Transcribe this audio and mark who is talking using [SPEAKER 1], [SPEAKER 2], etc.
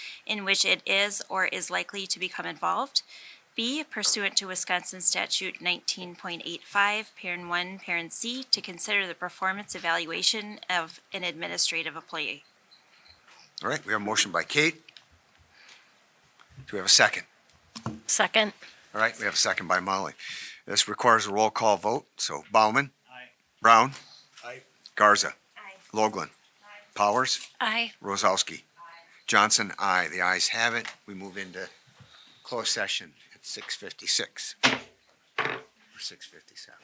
[SPEAKER 1] in which it is or is likely to become involved. B, pursuant to Wisconsin Statute nineteen point eight five, parent one, parent C, to consider the performance evaluation of an administrative employee.
[SPEAKER 2] All right, we have a motion by Kate. Do we have a second?
[SPEAKER 3] Second.
[SPEAKER 2] All right, we have a second by Molly. This requires a roll call vote, so Bauman. Aye. Brown.
[SPEAKER 4] Aye.
[SPEAKER 2] Garza.
[SPEAKER 1] Aye.
[SPEAKER 2] Logland. Powers.
[SPEAKER 3] Aye.
[SPEAKER 2] Rozowski. Johnson, aye. The ayes have it. We move into closed session at six fifty-six. Or six fifty-seven.